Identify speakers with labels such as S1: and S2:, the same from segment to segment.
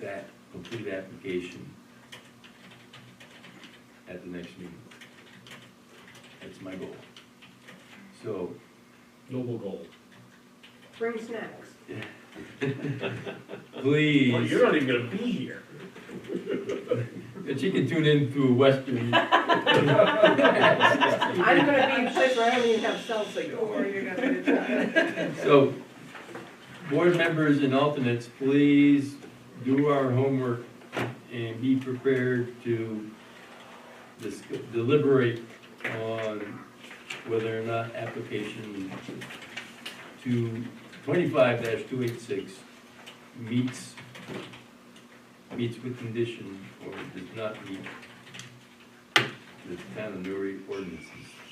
S1: that complete application at the next meeting. That's my goal. So,
S2: Noble goal.
S3: Bring snacks.
S1: please.
S2: Well, you're not even gonna be here.
S1: That you can tune in through Western.
S3: I'm gonna be in place where I don't even have salsa, don't worry, you're not gonna try.
S1: So, board members and alternates, please do our homework and be prepared to dis- deliberate on whether or not application two, twenty-five two eight six meets, meets with condition or does not meet the town of Newry ordinances.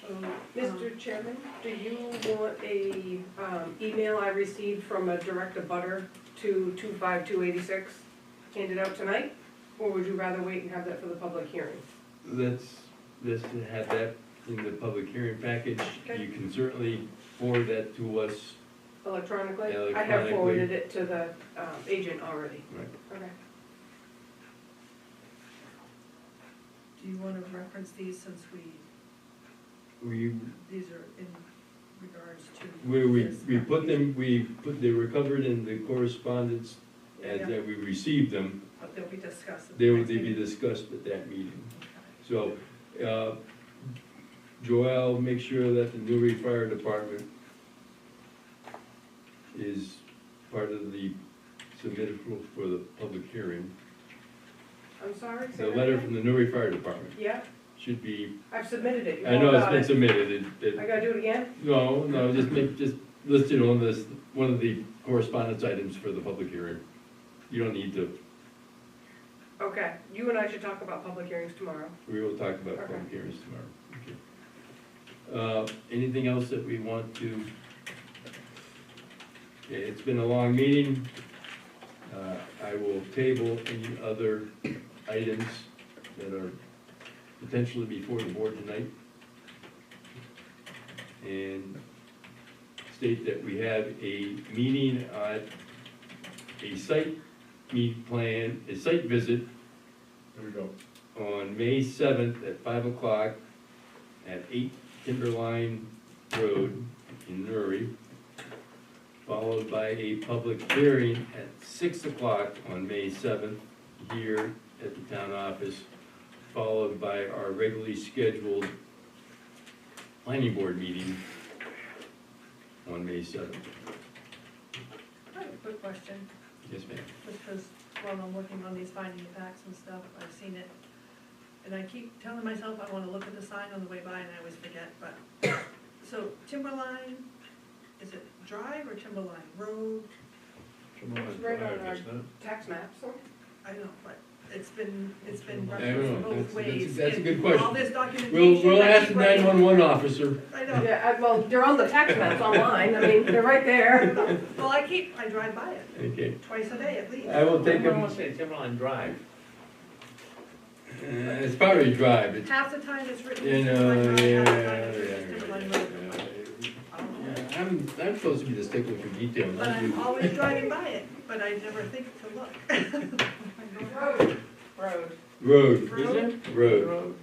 S4: Um,
S3: Mr. Chairman, do you want a, um, email I received from a director butter to two-five-two-eighty-six handed out tonight? Or would you rather wait and have that for the public hearing?
S1: Let's, let's have that in the public hearing package.
S3: Okay.
S1: You can certainly forward that to us.
S3: Electronically? I have
S1: Electronically.
S3: forwarded it to the, um, agent already.
S1: Right.
S3: Okay.
S4: Do you wanna reference these since we,
S1: We,
S4: these are in regards to?
S1: we, we,
S4: this
S1: we put them, we put, they were covered in the correspondence as
S4: Yeah,
S1: that we received them.
S4: But they'll be discussed. at the
S1: They will
S4: next
S1: be
S4: meeting.
S1: discussed at that meeting.
S4: Okay.
S1: So, uh, Joel, make sure that the Newry Fire Department is part of the submitted for the public hearing.
S3: I'm sorry? say
S1: The
S3: that
S1: letter
S3: again?
S1: from the Newry Fire Department
S3: Yeah,
S1: should be
S3: I've submitted it. You
S1: I
S3: all
S1: know it's
S3: got
S1: been
S3: it.
S1: submitted, it,
S3: I
S1: it,
S3: gotta do it again?
S1: no, no, just make, just listed on this, one of the correspondence items for the public hearing. You don't need to,
S3: Okay, you and I should talk about public hearings tomorrow.
S1: we will talk about public
S3: Okay.
S1: hearings tomorrow. Okay. Uh, anything else that we want to? Okay, it's been a long meeting. Uh, I will table any other items that are potentially before the board tonight. And state that we have a meeting at a site meet plan, a site visit
S2: There we go.
S1: on May seventh at five o'clock at eight Timberline Road in Newry, followed by a public hearing at six o'clock on May seventh here at the town office, followed by our regularly scheduled planning board meeting on May seventh.
S4: I have a quick question,
S1: Yes, ma'am.
S4: just because while I'm working on these finding of facts and stuff, I've seen it. And I keep telling myself I wanna look at the sign on the way by and I always forget, but, so Timberline, is it Drive or Timberline Road?
S3: It's right on our tax map, so.
S4: I don't know, but it's been, it's been
S1: I don't
S4: referenced
S1: know. That's-
S4: both
S1: that's-
S4: ways.
S1: that's a good
S4: in
S1: question.
S4: All this
S1: We'll,
S4: documentation.
S1: we'll
S4: I
S1: ask the
S4: keep writing-
S1: nine-one-one officer.
S4: I know.
S3: Yeah, I- well, they're on the tax maps online, I mean, they're right there.
S4: Well, I keep, I drive by it
S1: Okay,
S4: twice a day at least.
S1: I will take
S5: Everyone
S1: them, uh,
S5: wants to say Timberline Drive.
S1: it's probably drive, it's
S4: Half the time it's written.
S1: You
S4: Timberline
S1: know,
S4: Drive,
S1: yeah,
S4: half the time it's written Timberline
S1: yeah,
S4: Road. I don't know.
S1: yeah. I'm, I'm supposed to be the stickler for detail,
S4: But
S1: not
S4: I'm
S1: you.
S4: always driving by it, but I never think to look.
S3: Road, road.
S1: Road,
S4: Road.
S1: road.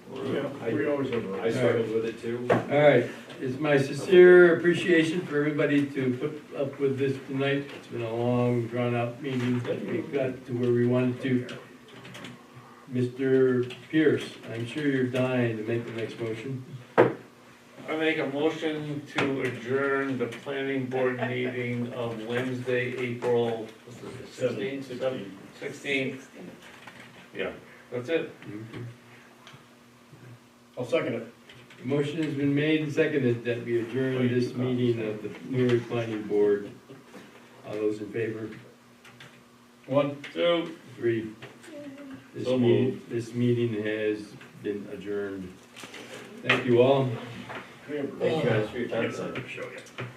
S2: Yeah, we always have.
S5: I struggled with it too.
S1: All right, it's my sincere appreciation for everybody to put up with this tonight. It's been a long, drawn-out meeting, but we got to where we wanted to. Mr. Pierce, I'm sure you're dying to make the next motion.
S5: I make a motion to adjourn the planning board meeting of Wednesday, April sixteenth, sixteenth, yeah, that's it.
S2: I'll second it.
S1: The Motion has been made and seconded that we adjourn this meeting of the Newry Planning Board. All those in favor?
S2: One.
S5: So,
S1: Three. This
S5: So
S1: meeting, this meeting has been adjourned. Thank you all.
S5: thank you guys for your time.
S2: Yes, I can show you.